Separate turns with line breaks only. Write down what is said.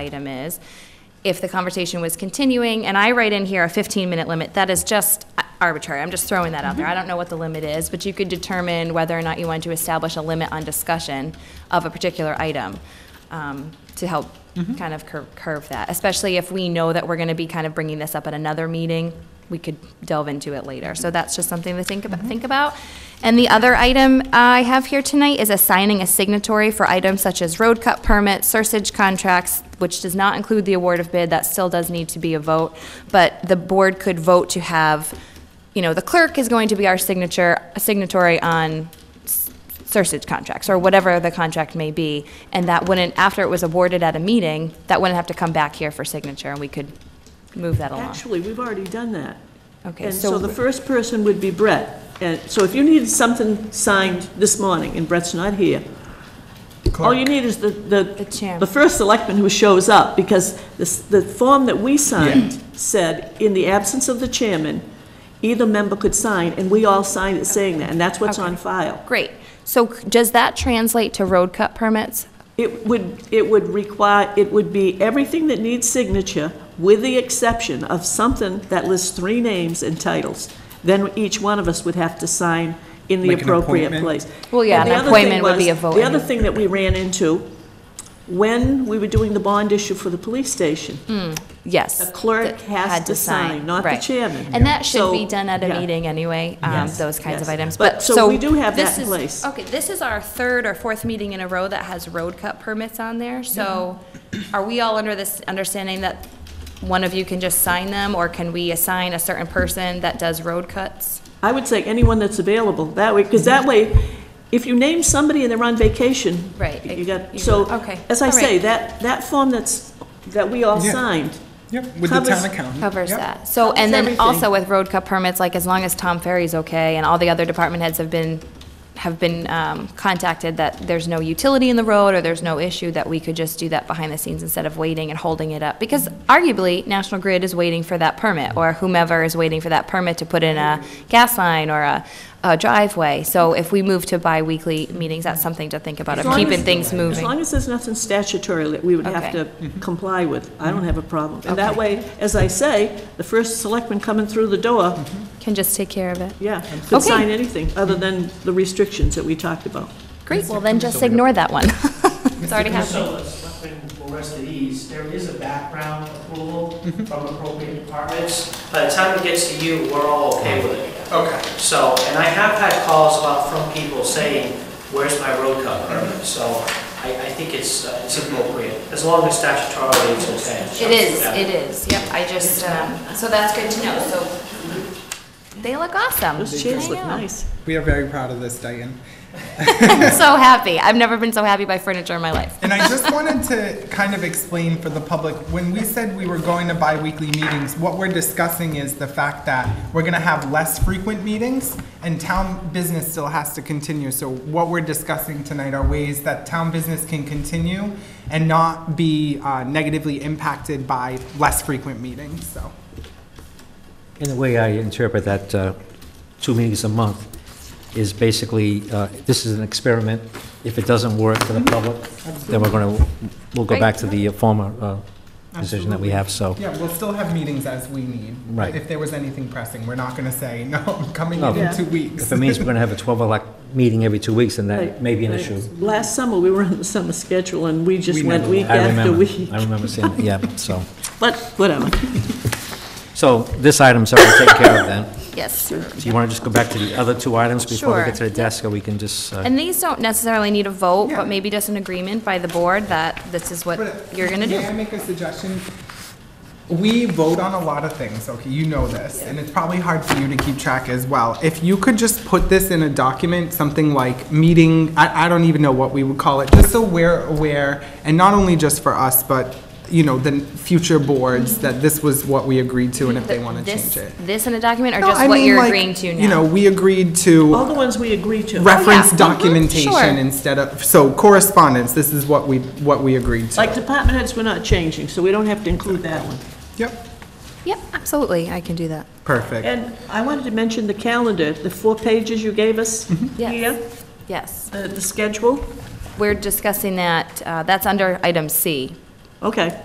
item is, if the conversation was continuing, and I write in here a 15-minute limit, that is just arbitrary, I'm just throwing that out there, I don't know what the limit is, but you could determine whether or not you want to establish a limit on discussion of a particular item, um, to help kind of cur- curve that, especially if we know that we're going to be kind of bringing this up at another meeting, we could delve into it later. So that's just something to think
Mm-hmm.
about, think about. And the other item I have here tonight is assigning a signatory for items such as road cut permits, sursage contracts, which does not include the award of bid, that still does need to be a vote. But the board could vote to have, you know, the clerk is going to be our signature, signatory on Sursage contracts, or whatever the contract may be, and that wouldn't, after it was awarded at a meeting, that wouldn't have to come back here for signature, and we could move that along.
Actually, we've already done that.
Okay,
And
so,
so the first person would be Brett. And so if you needed something signed this morning, and Brett's not here, all you need is the,
The
the,
chairman.
the first selectman who shows up, because this, the form that we signed said, in the absence of the chairman, either member could sign, and we all signed it saying that, and that's what's on file.
great. So c- does that translate to road cut permits?
It would, it would require, it would be everything that needs signature, with the exception of something that lists three names and titles. Then each one of us would have to sign in the
Like an
appropriate
appointment?
place.
Well, yeah, an
And the other thing
appointment would be
was-
a vote
The other
anyway.
thing that we ran into, when we were doing the bond issue for the police station,
Hmm. Yes.
The clerk
that
has
had
to sign, not the
right.
chairman.
And that should
So-
be done at a
yeah.
meeting anyway, um,
Yes,
those kinds of
yes.
items,
But-
but, so.
so we do have that
this
in
is-
place.
Okay, this is our third or fourth meeting in a row that has road cut permits on there, so are we all under this understanding that one of you can just sign them, or can we assign a certain person that does road cuts?
I would say anyone that's available, that way, because that way, if you name somebody and they're on vacation.
Right,
You
you-
got, so,
okay,
as I
all right.
say, that, that form that's, that we all
Yeah.
signed,
Yep, with the town
Covers-
accountant.
Covers
Yep.
that, so, and then
everything.
also with road cut permits, like, as long as Tom Ferry's okay, and all the other department heads have been, have been, um, contacted that there's no utility in the road, or there's no issue, that we could just do that behind the scenes instead of waiting and holding it up, because arguably, National Grid is waiting for that permit, or whomever is waiting for that permit to put in a gas line or a, a driveway, so if we move to bi-weekly meetings, that's something to think about,
As
of
long
keeping
as-
things moving.
as long as there's nothing statutory that we would have
Okay. Mm-hmm.
to comply with, I don't have a problem. And that way, as I say, the first selectman coming through the door,
Can just take care of it.
yeah, could
Mm-hmm. Okay.
sign anything, other than the restrictions that we talked about.
Great, well then just ignore that one. It's already happening.
So, uh, Selectman Foresta East, there is a background approval from appropriate departments. By the time it gets to you, we're all okay with it.
Okay.
So, and I have had calls about, from people saying, where's my road cut permit? So I, I think it's, uh, it's appropriate, as long as statutorily it's okay.
It is, it is, yep, I just, um, so that's good to know, so. They look awesome.
Those chairs
I
look
know.
nice.
Uh,
We are very proud of this, Diane.
I'm so happy, I've never been so happy by furniture in my life.
And I just wanted to kind of explain for the public, when we said we were going to bi-weekly meetings, what we're discussing is the fact that we're gonna have less frequent meetings and town business still has to continue. So what we're discussing tonight are ways that town business can continue and not be uh, negatively impacted by less frequent meetings, so.
In the way I interpret that, uh, two meetings a month is basically, uh, this is an experiment. If it doesn't work for the public, then we're going to, we'll go back to the former uh, position that we have, so.
Yeah, we'll still have meetings as we need.
Right.
If there was anything pressing, we're not gonna say, no, I'm coming
No.
in in
Yeah.
two weeks.
If it means we're going to have a 12 o'clock meeting every two weeks, then
Right,
that may be an
right.
issue.
Last summer, we were on the summer schedule, and we just
We
went
never
week
I
after
remember,
week.
I remember seeing, yeah, so.
But, whatever.
So this item's already taken care of then.
Yes,
Do you want to just go back to the other two items before we
Sure.
get to the desk, or we can just? uh,
and these don't necessarily need a vote,
Yeah.
but maybe just an agreement by the board that this is what
But
you're gonna
May I
do.
make a suggestion? We vote on a lot of things, okay, you know this, and it's probably hard for you to keep track as well. If you could just put this in a document, something like meeting, I, I don't even know what we would call it, just so we're aware, and not only just for us, but, you know, the future boards, that this was what we agreed to, and if they want to
This,
change it.
this in a document, or
No,
just
I
what
mean,
you're
like,
agreeing to now? Oh,
You know, we agreed to
All the ones we agreed to.
reference
Mhm, sure.
documentation instead of, so correspondence, this is what we, what we agreed to.
Like department heads, we're not changing, so we don't have to include that one.
Yep,
Yep, absolutely, I can do that.
perfect.
And I wanted to mention the calendar, the four pages you gave us
Mm-hmm.
Yes.
here,
Yes,
the the schedule.
we're discussing that, uh, that's under item C.
Okay.